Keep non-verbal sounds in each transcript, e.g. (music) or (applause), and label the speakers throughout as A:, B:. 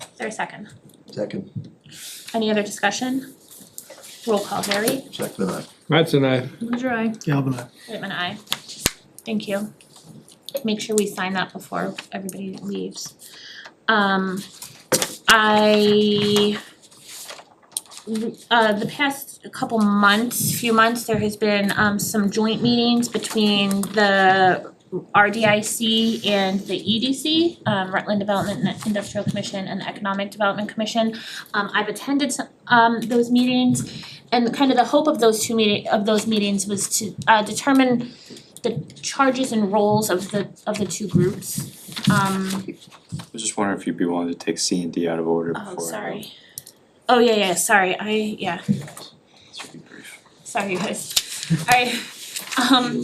A: Is there a second?
B: Second,
A: Any other discussion? Roll call, Harry.
B: second and I.
C: Matt's an aye.
A: Ledger, aye.
D: Galvin eye.
A: Whitman, aye. Thank you. Make sure we sign that before everybody leaves. Um, I, uh, the past couple months, few months, there has been, um, some joint meetings between the RDIC and the EDC, um, Rutland Development and Industrial Commission and the Economic Development Commission. Um, I've attended some, um, those meetings and kind of the hope of those two meeting, of those meetings was to, uh, determine the charges and roles of the, of the two groups. Um,
E: was just wondering if you'd be willing to take C and D out of order before.
A: oh, sorry. Oh, yeah, yeah, sorry, I, yeah,
E: This would be brief.
A: sorry guys. Alright, um.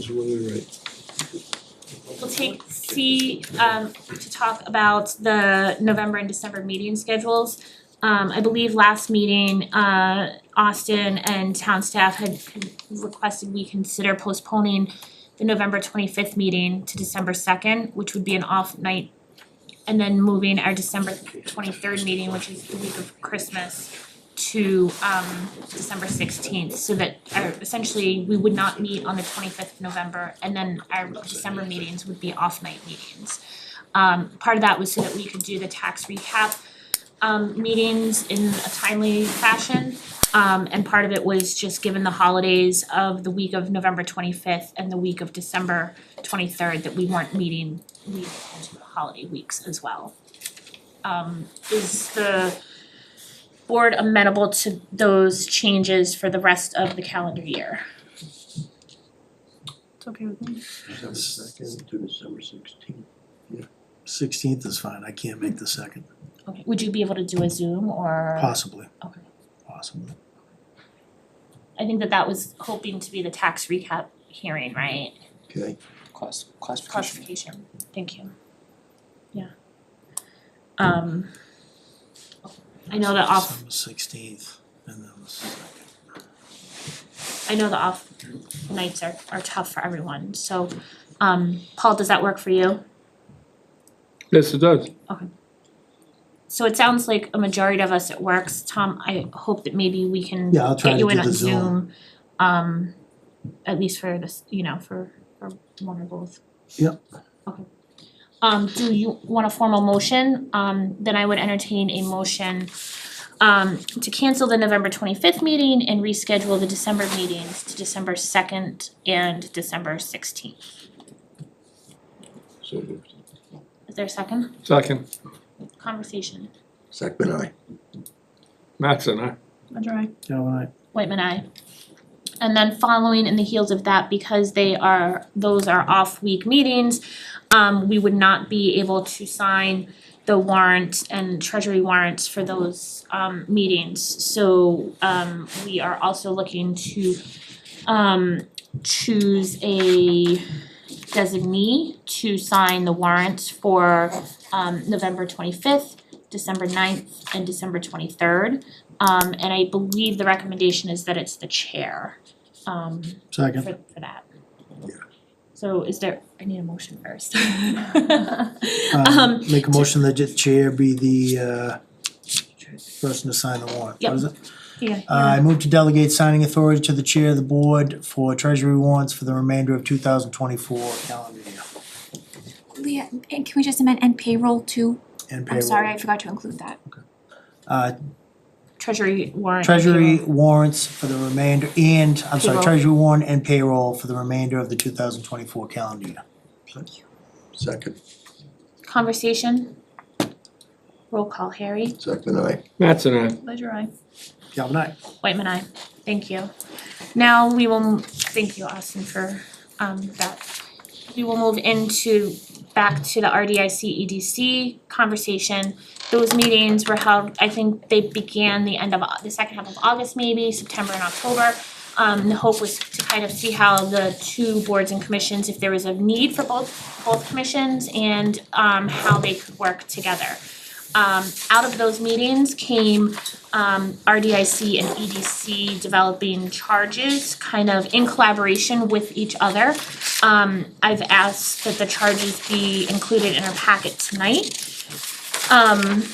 A: We'll take C um to talk about the November and December meeting schedules. Um I believe last meeting uh Austin and town staff had con- requested we consider postponing the November twenty fifth meeting to December second, which would be an off night. And then moving our December twenty third meeting, which is the week of Christmas, to um December sixteenth, so that our essentially, we would not meet on the twenty fifth of November, and then our December meetings would be off night meetings. Um part of that was so that we could do the tax recap um meetings in a timely fashion. Um and part of it was just given the holidays of the week of November twenty fifth and the week of December twenty third, that we weren't meeting we holiday weeks as well. Um is the board amenable to those changes for the rest of the calendar year.
F: It's okay with me.
B: December second to December sixteenth.
D: Sixteenth is fine, I can't make the second,
A: Okay, would you be able to do a Zoom or?
D: possibly.
A: Okay.
D: Possibly.
A: I think that that was hoping to be the tax recap hearing, right?
B: Okay,
E: Class, classification.
A: Classification, thank you. Yeah. Um. I know the off,
D: Sixteenth, and then the second.
A: I know the off nights are are tough for everyone, so um Paul, does that work for you?
C: Yes, it does.
A: So it sounds like a majority of us it works, Tom, I hope that maybe we can
D: Yeah, I'll try
A: get
D: to
A: you in
D: do
A: on
D: the Zoom.
A: Zoom, um, at least for this, you know, for, for one or both.
D: Yep.
A: Okay. Um, do you want a formal motion? Um, then I would entertain a motion um, to cancel the November twenty-fifth meeting and reschedule the December meetings to December second and December sixteenth.
B: so moved.
A: Is there a second
C: Second,
A: conversation?
B: Second and I.
C: Matt's an aye.
F: Ledger eye.
D: Galvin eye.
A: Whitman, I, And then following in the heels of that, because they are, those are off week meetings, um, we would not be able to sign the warrant and treasury warrants for those, um, meetings. So, um, we are also looking to, um, choose a designee to sign the warrants for, um, November twenty-fifth, December 9th, and December twenty-third. Um and I believe the recommendation is that it's the chair um for
D: Second,
A: for that.
B: Yeah.
A: So is there, I need a motion first.
D: (laughs) um,
A: Um,
D: make a motion that the chair be the, uh, person to sign the warrant,
A: Yep.
D: what is it?
A: Yeah,
D: Uh, I move to delegate signing authority to the chair of the board for treasury warrants for the remainder of two thousand twenty-four calendar year.
F: Leah, and can we just amend and payroll too?
D: And
F: I'm
D: payroll.
F: sorry, I forgot to include that.
D: Uh,
A: treasury warrant.
D: treasury warrants for the remainder, and, I'm sorry,
A: Payroll.
D: treasury warrant and payroll for the remainder of the two thousand twenty-four calendar year.
F: Thank you.
B: Second,
A: Conversation. Roll call, Harry.
B: second and I.
C: Matt's an aye.
F: Ledger eye.
D: Galvin eye.
A: Whitman, I. Thank you. Now we will, m- thank you, Austin, for um that. We will move into, back to the RDIC EDC E conversation. Those meetings were held, I think they began the end of, Au- the second half of August maybe, September and October. Um the hope was to kind of see how the two boards and commissions, if there was a need for both both commissions and um how they could work together. Um out of those meetings came um RDIC and EDC developing charges kind of in collaboration with each other. Um I've asked that the charges be included in our packet tonight. Um